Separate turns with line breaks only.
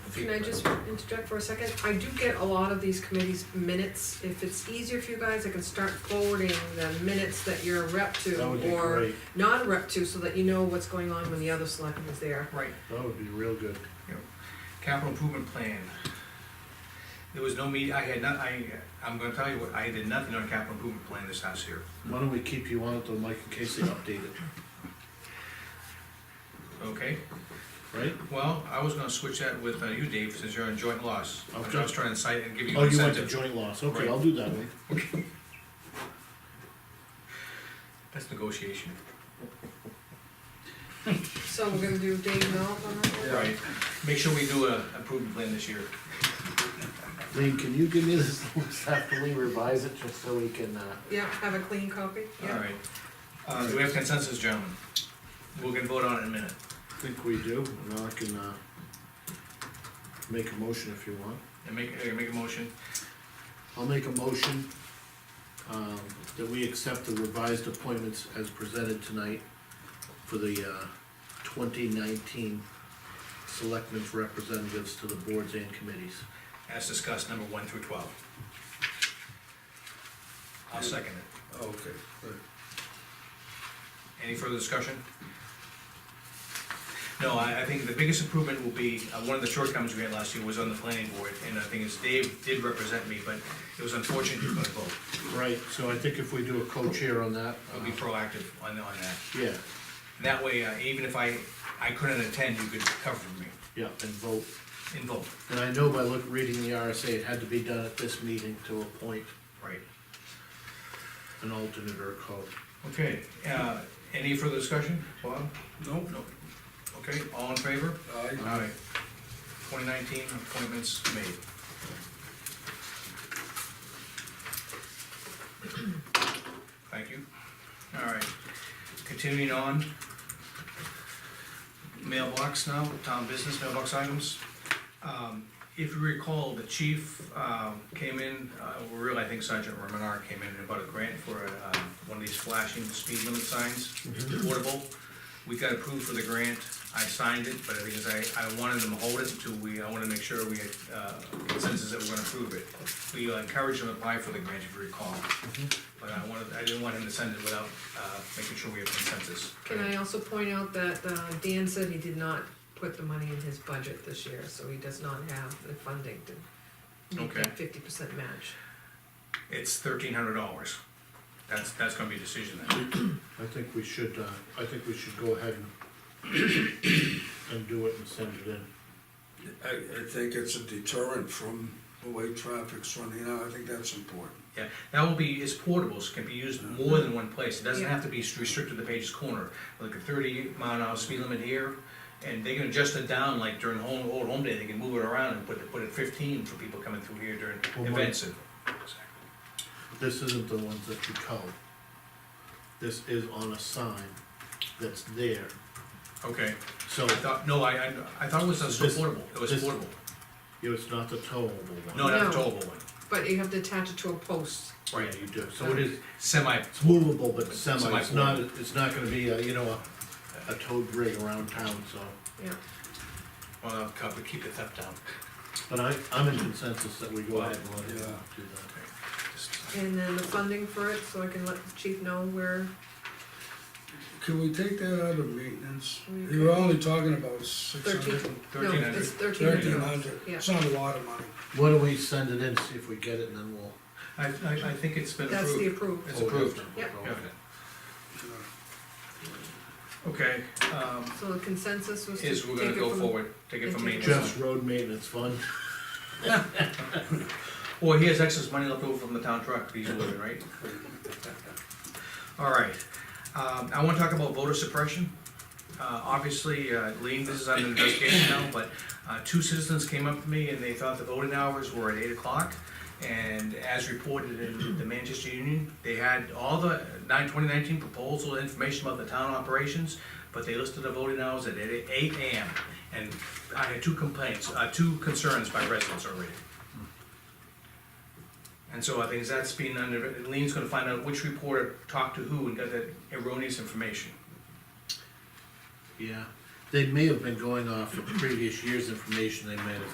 Can I just interject for a second? I do get a lot of these committees minutes. If it's easier for you guys, I can start forwarding the minutes that you're a rep
That would be
to or
great,
non-rep to, so that you know what's going on when the other selectman is there.
Right,
that would be real good.
capital improvement plan. There was no meet, I had not, I, I'm gonna tell you what, I did nothing on capital improvement plan this house here.
Why don't we keep you on it though, Mike, in case they update it,
Okay,
right?
well, I was gonna switch that with uh, you, Dave, since you're on joint loss. I was
Okay.
just trying to cite and give you
Oh,
an
you went to
incentive.
joint loss, okay,
Right.
I'll do that one.
That's negotiation.
So we're gonna do Dave Knoll on that one?
Right, make sure we do a improvement plan this year.
Lean, can you give me this list after we revise it, just so we can, uh,
Yeah, have a clean copy?
All
Yeah.
right. Uh, do we have consensus, gentlemen? We can vote on it in a minute.
I think we do, and I can, uh, make a motion if you want.
And make, uh, make a motion.
I'll make a motion, um, that we accept the revised appointments as presented tonight for the, uh, twenty nineteen selectmen's representatives to the boards and committees.
as discussed, number one through twelve. I'll second it.
Okay, good.
Any further discussion? No, I, I think the biggest improvement will be, uh, one of the shortcomings we had last year was on the planning board, and the thing is, Dave did represent me, but it was unfortunate you couldn't vote.
Right, so I think if we do a co-chair on that,
I'll be
uh,
proactive on, on that.
yeah,
And that way, uh, even if I, I couldn't attend, you could cover for me
yeah, and vote.
in vote,
And I know by look, reading the RSA, it had to be done at this meeting to appoint
right?
an alternate or a co.
Okay, uh, any further discussion, Bob?
No,
No. Okay, all in favor?
aye,
All right, twenty nineteen appointments made. Thank you. All right, continuing on. Mailbox now, town business mailbox items. Um, If you recall, the chief um, came in, uh, well, really, I think Sergeant Romanar came in about a grant for uh, one of these flashing speed limit signs, portable. We got approved for the grant, I signed it, but because I, I wanted them to hold it until we, I wanna make sure we had uh, consensus that we're gonna approve it. We uh, encouraged him to apply for the grant, if you recall. But I wanted, I didn't want him to send it without uh, making sure we have consensus.
Can I also point out that uh, Dan said he did not put the money in his budget this year, so he does not have the funding to meet
Okay.
that fifty percent match.
It's thirteen hundred dollars. That's, that's gonna be a decision then.
I think we should, uh, I think we should go ahead and and do it and send it in.
I, I think it's a deterrent from the way traffic's running now, I think that's important.
Yeah, that will be, it's portables, can be used more than one place, it doesn't
Yeah.
have to be restricted to Page's Corner, like a thirty mile an hour speed limit here, and they can adjust it down, like during home, old home day, they can move it around and put it, put it fifteen for people coming through here
Well,
during
my-
events and.
This isn't the ones that you call. This is on a sign that's there,
Okay,
so,
I thought, no, I, I, I thought it was a
This-
portable, it was
this-
portable,
you know, it's not the towable one.
no, not a
No.
towable one,
But you have to attach it to a post.
Yeah,
right,
you do, so it is,
semi,
it's movable, but semi, it's not,
Semi-portable.
it's not gonna be, a, you know, a, a towed rig around town, so.
Yeah.
well, I'll cover, keep the theft down.
But I, I'm in consensus that we go ahead and let
Yeah.
him do that.
Just-
And then the funding for it, so I can let the chief know where,
Can we take that out of maintenance?
We
You were only talking about six hundred,
Thirteen. no,
$1,300.
it's thirteen hundred
thirteen
dollars.
hundred,
Yeah.
it's not a lot of money.
Why don't we send it in, see if we get it, and then we'll.
I, I, I think it's been
That's the
approved.
approved.
It's approved.
Yeah.
Yeah.
you know.
Okay, um,
So the consensus was to
is we're gonna
take it
go
from-
forward, take it from
Take it.
maintenance.
Jeff's road maintenance fund,
Well, he has excess money left over from the town truck, he's living, right? All right, um, I wanna talk about voter suppression. Uh, obviously, uh, Lean, this is under investigation now, but, uh, two citizens came up to me and they thought the voting hours were at eight o'clock. And as reported in the Manchester Union, they had all the nine, twenty nineteen proposal information about the town operations, but they listed the voting hours at eight eight AM. And I had two complaints, uh, two concerns by residents already. And so I think that's been under, Lean's gonna find out which reporter talked to who and got that erroneous information.
yeah, they may have been going off of previous year's information, they may have